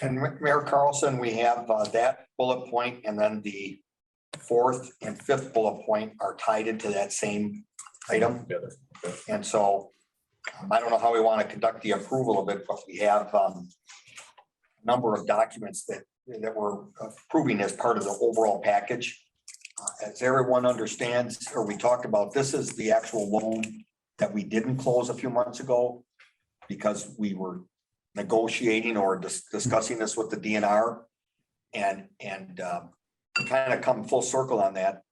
And Ma- Mayor Carlson, we have uh, that bullet point and then the fourth and fifth bullet point are tied into that same item. Together. And so um, I don't know how we want to conduct the approval of it, but we have um, a number of documents that, that we're approving as part of the overall package. Uh, As everyone understands, or we talked about, this is the actual loan that we didn't close a few months ago because we were negotiating or dis- discussing this with the DNR. And, and kind of come full circle on that.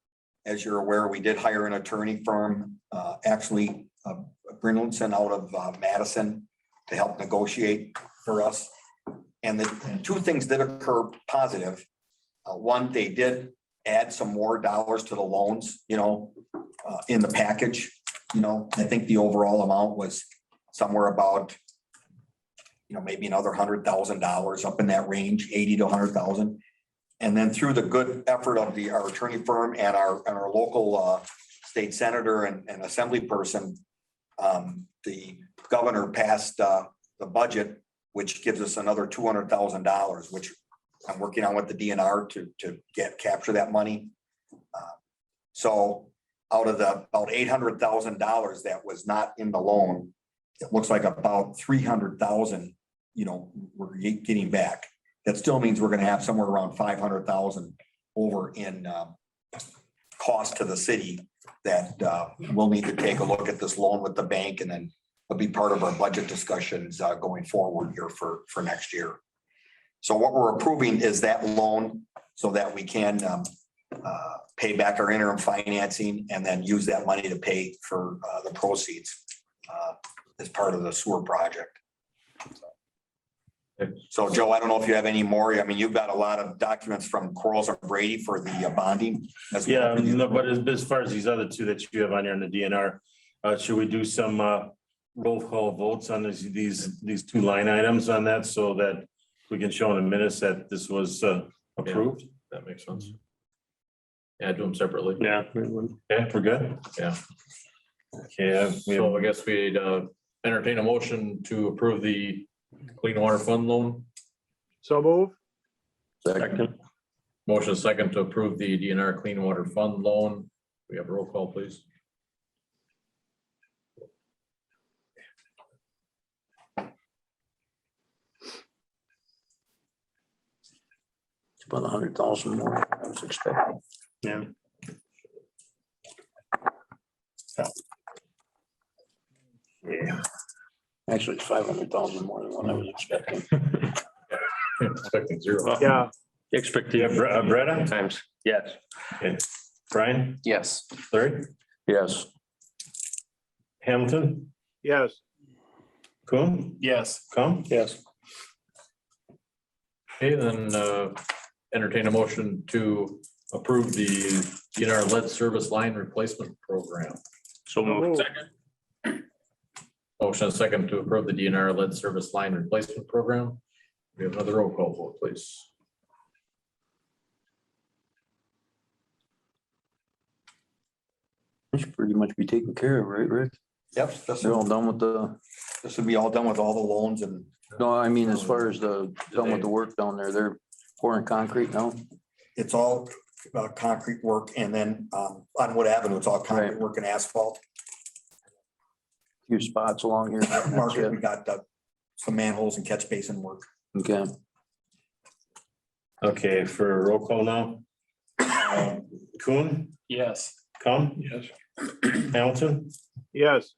As you're aware, we did hire an attorney firm, uh, actually, uh, Brinlinson out of uh, Madison to help negotiate for us. And the two things did occur positive. Uh, One, they did add some more dollars to the loans, you know, uh, in the package. You know, I think the overall amount was somewhere about, you know, maybe another hundred thousand dollars up in that range, eighty to hundred thousand. And then through the good effort of the, our attorney firm and our, and our local uh, state senator and, and assembly person, um, the governor passed uh, the budget, which gives us another two hundred thousand dollars, which I'm working on with the DNR to, to get, capture that money. Uh, So out of the, about eight hundred thousand dollars that was not in the loan, it looks like about three hundred thousand, you know, we're ge- getting back. That still means we're gonna have somewhere around five hundred thousand over in um, cost to the city that uh, we'll need to take a look at this loan with the bank and then it'll be part of our budget discussions uh, going forward here for, for next year. So what we're approving is that loan so that we can um, uh, pay back our interim financing and then use that money to pay for uh, the proceeds uh, as part of the sewer project. So Joe, I don't know if you have any more. I mean, you've got a lot of documents from Corals and Brady for the uh, bonding. as well. Yeah, um, no, but as, as far as these other two that you have on here in the DNR, uh, should we do some, uh, roll call votes on these, these, these two line items on that so that we can show in the minutes that this was, uh, approved? That makes sense. Yeah, do them separately. Yeah. Yeah, we're good? Yeah. Okay, I- we have- So I guess we'd uh, entertain a motion to approve the clean water fund loan. So move. Motion second to approve the DNR clean water fund loan. We have a roll call, please. It's About a hundred thousand more than I was expecting. Yeah. Yeah. Actually, it's five hundred thousand more than what I was expecting. Expecting zero. Yeah, yeah, Bre- uh, Bretta, Times, yes. Brian, Yes. Larry, Yes. Hamilton, yes. Coon? Yes. Coon? Yes. Okay, then uh, entertain a motion to approve the DNR lead service line replacement program. So moved. Motion second to approve the DNR lead service line replacement program. We have another roll call vote, please. This should pretty much be taken care of, right, Rick? Yep, this They're will, all done with the, this will be all done with all the loans and no, I mean, as far as the, done with the work down there, they're pouring concrete now. it's all uh, concrete work and then um, on Wood Avenue, it's all concrete Right. work and asphalt. Few spots along here. That's Market, it. we got uh, some manholes and catch basin work. Okay. Okay, for roll call now. Um, Coon? Yes. Coon? Yes. Hamilton, Yes,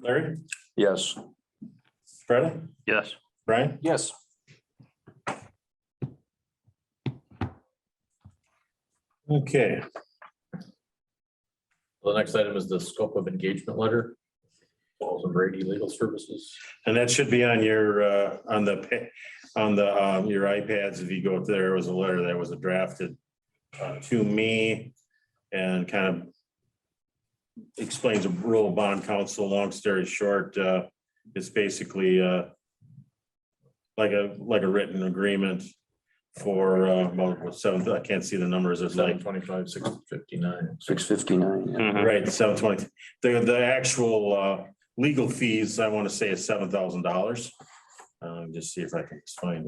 Larry, Yes. Bretta, Yes. Brian? Yes. Okay, The next item is the scope of engagement letter. Walls and Brady Legal Services. and that should be on your, uh, on the, pa- on the, um, your iPads, if you go up there, it was a letter that was drafted uh, to me and kind of explains a role of bond counsel, long story short, uh, it's basically, uh, like a, like a written agreement for, uh, well, seven, I can't see the numbers, it's like Seven twenty-five, six fifty-nine. Six fifty-nine. Right, seven twenty. The, the actual, uh, legal fees, I want to say is seven thousand dollars. Uh, just see if I can find